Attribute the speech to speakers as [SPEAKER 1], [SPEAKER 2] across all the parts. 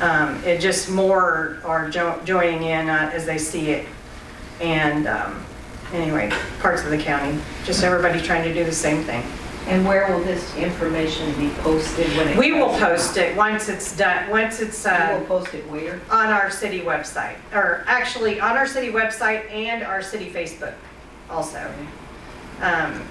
[SPEAKER 1] Um, It just more are jo- joining in uh, as they see it. And um, anyway, parts of the county, just everybody trying to do the same thing.
[SPEAKER 2] And where will this information be posted when it?
[SPEAKER 1] We will
[SPEAKER 2] comes out?
[SPEAKER 1] post it once it's done, once it's
[SPEAKER 2] You
[SPEAKER 1] uh,
[SPEAKER 2] will post it where?
[SPEAKER 1] on our city website, or actually on our city website and our city Facebook also. Um,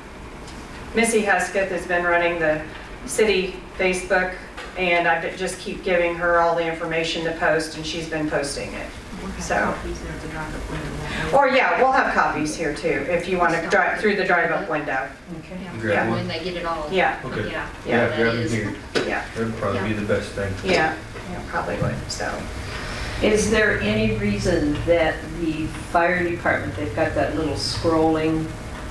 [SPEAKER 1] Missy Husketh has been running the city Facebook, and I just keep giving her all the information to post, and she's been posting it. So- Or yeah, we'll have copies here too, if you want to drive, through the drive-up window.
[SPEAKER 2] Okay.
[SPEAKER 3] Grab
[SPEAKER 1] one.
[SPEAKER 3] When they get it all.
[SPEAKER 1] Yeah,
[SPEAKER 3] Yeah.
[SPEAKER 4] Okay.
[SPEAKER 1] Yeah,
[SPEAKER 4] Yeah, grab
[SPEAKER 3] that
[SPEAKER 4] it
[SPEAKER 3] is-
[SPEAKER 4] here.
[SPEAKER 1] yeah,
[SPEAKER 4] That'd probably be the best thing.
[SPEAKER 1] yeah, yeah, probably would, so.
[SPEAKER 2] Is there any reason that the fire department, they've got that little scrolling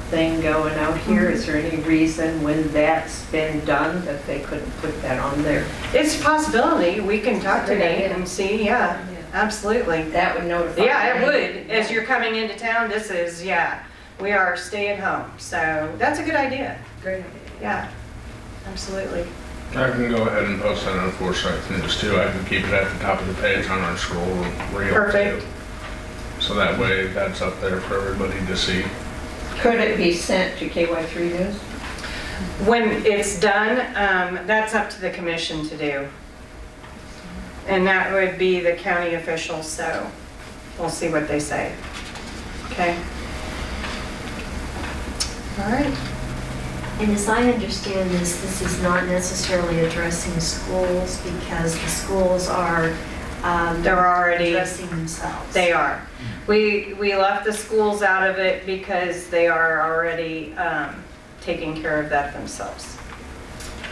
[SPEAKER 2] thing going out here?
[SPEAKER 1] Mm-hmm.
[SPEAKER 2] Is there any reason when that's been done that they couldn't put that on there?
[SPEAKER 1] It's a possibility, we can talk to
[SPEAKER 2] Great
[SPEAKER 1] Nate
[SPEAKER 2] idea.
[SPEAKER 1] and see, yeah, absolutely.
[SPEAKER 2] That would notify.
[SPEAKER 1] Yeah, it
[SPEAKER 2] me.
[SPEAKER 1] would, as you're coming into town, this is, yeah, we are staying home, so that's a good idea,
[SPEAKER 2] Great.
[SPEAKER 1] yeah, absolutely.
[SPEAKER 5] I can go ahead and post that on the Forsyth News too. I can keep it at the top of the page on our scroll reel. too.
[SPEAKER 1] Perfect.
[SPEAKER 5] So that way, that's up there for everybody to see.
[SPEAKER 2] Could it be sent to KY3 News?
[SPEAKER 1] When it's done, um, that's up to the commission to do. And that would be the county officials, so we'll see what they say. Okay? All right.
[SPEAKER 6] And as I understand this, this is not necessarily addressing schools because the schools are. um,
[SPEAKER 1] They're already-
[SPEAKER 6] Addressing themselves.
[SPEAKER 1] They are. We, we left the schools out of it because they are already um, taking care of that themselves.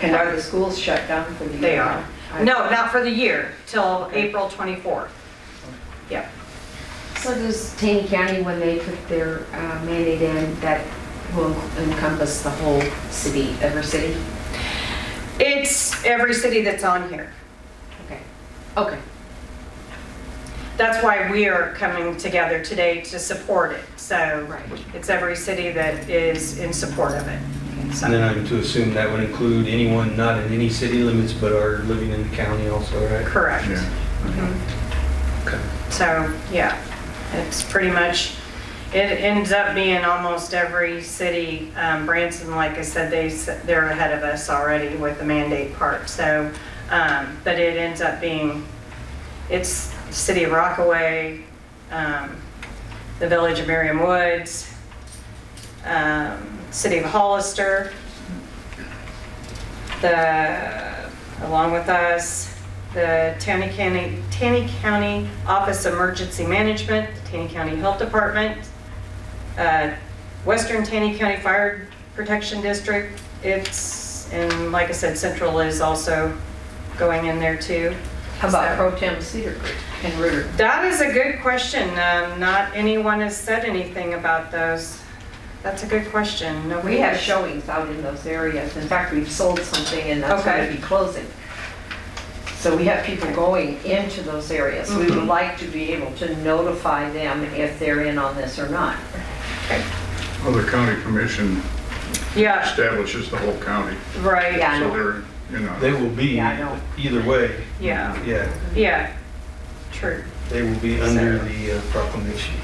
[SPEAKER 2] And are the schools shut down for the year?
[SPEAKER 1] They are.
[SPEAKER 2] I-
[SPEAKER 1] No, not for the year, till April 24th. Yep.
[SPEAKER 7] So does Taney County, when they put their uh, mandate in, that will encompass the whole city, every city?
[SPEAKER 1] It's every city that's on here.
[SPEAKER 7] Okay, okay.
[SPEAKER 1] That's why we are coming together today to support it. So
[SPEAKER 7] Right.
[SPEAKER 1] it's every city that is in support of it. So-
[SPEAKER 4] And then I'm to assume that would include anyone not in any city limits but are living in the county also, right?
[SPEAKER 1] Correct.
[SPEAKER 5] Yeah.
[SPEAKER 1] Mhm.
[SPEAKER 4] Okay.
[SPEAKER 1] So, yeah, it's pretty much, it ends up being almost every city. Um, Branson, like I said, they, s- they're ahead of us already with the mandate part, so, um, but it ends up being, it's City of Rockaway, um, the Village of Merriam Woods, um, City of Hollister, the, along with us, the Tanny County, Tanny County Office of Emergency Management, the Tanny County Health Department, uh, Western Tanny County Fire Protection District, it's, and like I said, Central is also going in there too.
[SPEAKER 2] How
[SPEAKER 1] So-
[SPEAKER 2] about Pro Tem Cedar Creek and Ritter?
[SPEAKER 1] that is a good question. Um, Not anyone has said anything about those. That's a good question. No,
[SPEAKER 2] We have showings out in those areas. In fact, we've sold something and that's going
[SPEAKER 1] Okay.
[SPEAKER 2] to be closing. So we have people going into those areas. We would like to be able to notify them if they're in on this or not.
[SPEAKER 8] Well, the county commission
[SPEAKER 1] Yeah,
[SPEAKER 8] establishes the whole county,
[SPEAKER 1] right,
[SPEAKER 2] Yeah. I
[SPEAKER 8] so
[SPEAKER 2] know.
[SPEAKER 8] they're, you know.
[SPEAKER 4] They will be
[SPEAKER 2] Yeah, I know.
[SPEAKER 4] either way.
[SPEAKER 1] yeah,
[SPEAKER 4] Yeah,
[SPEAKER 1] yeah, true.
[SPEAKER 4] they will be under the uh, proclamation.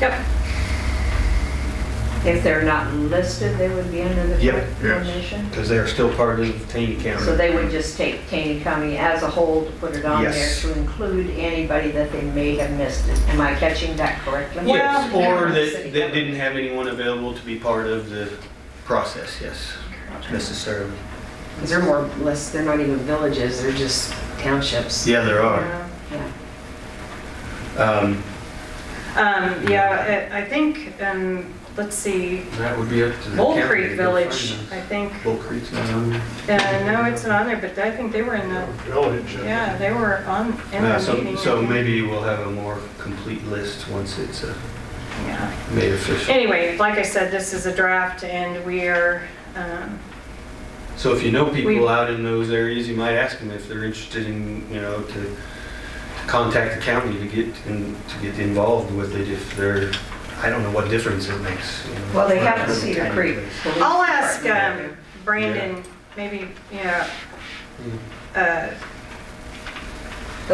[SPEAKER 1] Yep,
[SPEAKER 2] If they're not listed, they would be under the
[SPEAKER 4] Yep,
[SPEAKER 8] yes.
[SPEAKER 2] proclamation.
[SPEAKER 4] Because they are still part of Taney
[SPEAKER 2] So
[SPEAKER 4] County.
[SPEAKER 2] they would just take Kane County as a whole to put it on there
[SPEAKER 4] Yes.
[SPEAKER 2] to include anybody that they may have missed. it. Am I catching that correctly?
[SPEAKER 4] Yes,
[SPEAKER 1] Well,
[SPEAKER 4] or that, that didn't have anyone available to be part of the process, yes, necessarily.
[SPEAKER 7] 'Cause they're more, or less, they're not even villages, they're just townships.
[SPEAKER 4] Yeah, there are.
[SPEAKER 1] yeah.
[SPEAKER 4] Um,
[SPEAKER 1] Um, yeah, I I think, um, let's see,
[SPEAKER 4] That would be up to the
[SPEAKER 1] Bull
[SPEAKER 4] county to Um,
[SPEAKER 1] Creek
[SPEAKER 4] go
[SPEAKER 1] Village,
[SPEAKER 4] find
[SPEAKER 1] I
[SPEAKER 4] those.
[SPEAKER 1] think,
[SPEAKER 4] Bull Creek's not on there.
[SPEAKER 1] uh, no, it's not on there, but I think they were in the,
[SPEAKER 8] Village. uh,
[SPEAKER 1] yeah, they were on, in
[SPEAKER 4] Yeah,
[SPEAKER 1] the
[SPEAKER 4] Uh, so,
[SPEAKER 1] meeting.
[SPEAKER 4] so maybe we'll have a more complete list once it's uh,
[SPEAKER 1] Yeah.
[SPEAKER 4] made official.
[SPEAKER 1] Anyway, like I said, this is a draft and we are, um,
[SPEAKER 4] So if you know
[SPEAKER 1] We-
[SPEAKER 4] people out in those areas, you might ask them if they're interested in, you know, to to contact the county to get, in- to get involved with it if they're, I don't know what difference it makes. you know.
[SPEAKER 2] Well, they
[SPEAKER 4] It's
[SPEAKER 2] have
[SPEAKER 4] not
[SPEAKER 2] the
[SPEAKER 4] a
[SPEAKER 2] Cedar
[SPEAKER 4] tiny
[SPEAKER 2] Creek.
[SPEAKER 4] place.
[SPEAKER 2] Police
[SPEAKER 1] I'll ask
[SPEAKER 2] Department.
[SPEAKER 1] um, Brandon, maybe, you know, uh,